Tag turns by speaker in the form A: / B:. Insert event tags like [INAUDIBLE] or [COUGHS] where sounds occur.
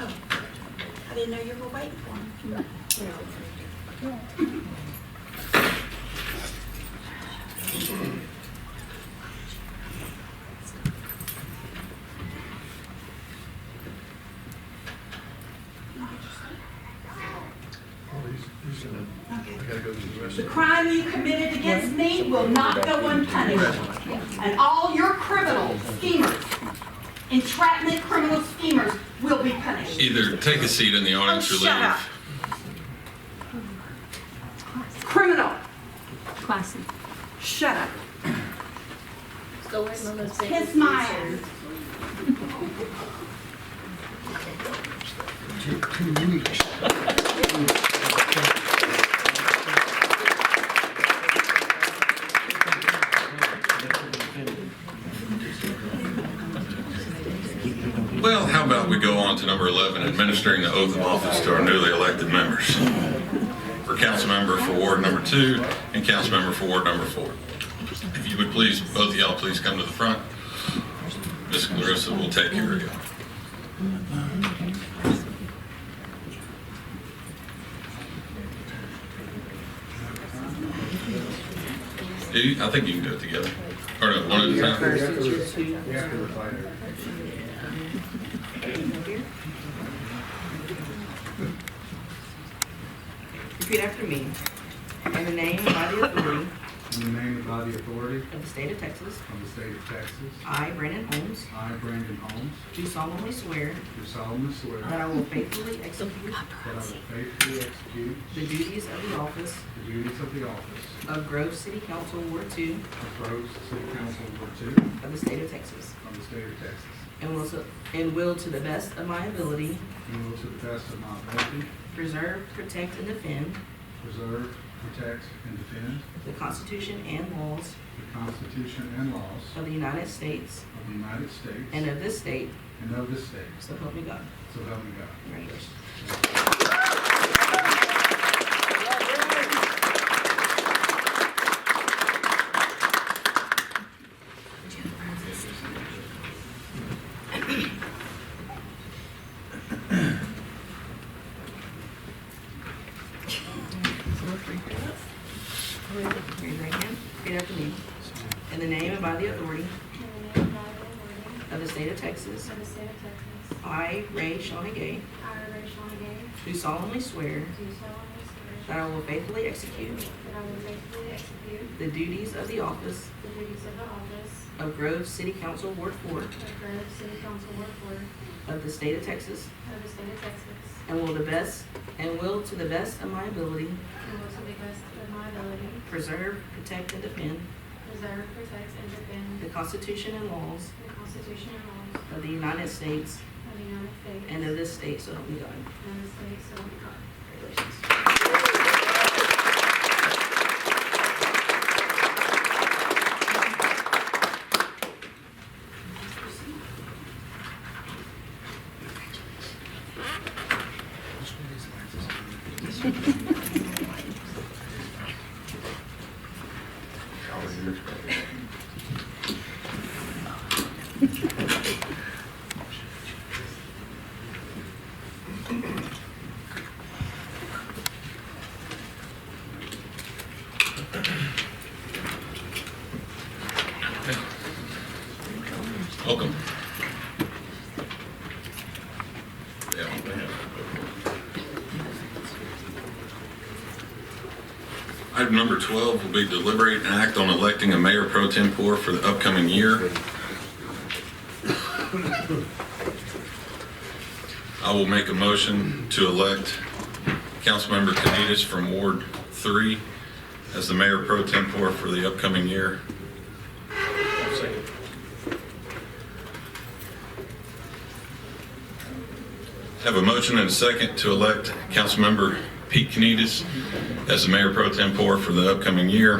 A: Oh, I didn't know you were waiting for me.
B: Oh, he's, he's gonna, I gotta go to the
C: The
B: restroom.
C: crime you committed against me will not go unpunished. And all your criminal schemers, entrapment criminal schemers will be punished.
D: Either take a seat in the audience or
A: Oh, shut up.
D: leave.
C: Criminal,
E: Classy.
C: shut up.
E: Go ahead, Melissa.
C: Kiss my ass.
B: Two weeks.
D: Well, how about we go on to number 11, administering the oath of office to our newly elected members. For council member for ward number two and council member for ward number four. If you would please, both of y'all please come to the front. Ms. Clarissa will take care of you. Do you- I think you can do it together. Or no, one at a time.
F: Repeat after me. In the name and by the
G: [COUGHS]
F: authority
G: In the name and by the authority
F: of the state of Texas,
G: of the state of Texas,
F: I, Brandon Holmes,
G: I, Brandon Holmes,
F: do solemnly swear
G: do solemnly swear
F: that I will faithfully execute
G: that I will faithfully execute
F: the duties of the office
G: the duties of the office
F: of Grove City Council Ward Two
G: of Groves City Council Ward Two
F: of the state of Texas,
G: of the state of Texas,
F: and will, so- and will to the best of my ability
G: and will to the best of my ability
F: preserve, protect, and defend
G: preserve, protect, and defend
F: the Constitution and laws
G: the Constitution and laws
F: of the United States
G: of the United States
F: and of this state,
G: and of this state,
F: so help me God.
G: so help me God.
F: Congratulations. Raise your right hand. Repeat after me. In the name and by the authority of the state of Texas,
H: Of the state of Texas,
F: I, Ray Shawnee Gay,
H: I, Rachel Gay,
F: do solemnly swear
H: do solemnly swear
F: that I will faithfully execute
H: that I will faithfully execute
F: the duties of the office
H: the duties of the office
F: of Grove City Council Ward Four
H: of Grove City Council Ward Four
F: of the state of Texas,
H: of the state of Texas,
F: and will the best, and will to the best of my ability
H: and will to the best of my ability
F: preserve, protect, and defend
H: preserve, protect, and defend
F: the Constitution and laws
H: the Constitution and laws
F: of the United States
H: of the United States
F: and of this state, so help me God.
H: and the state, so help me God.
F: Congratulations.
D: Welcome. Yeah. Item number 12 will be deliberate and act on electing a mayor pro tempore for the upcoming year. I will make a motion to elect Councilmember Canitas from Ward 3 as the mayor pro tempore for the upcoming year. Have a motion and a second to elect Councilmember Pete Kniedis as the mayor pro tempore for the upcoming year.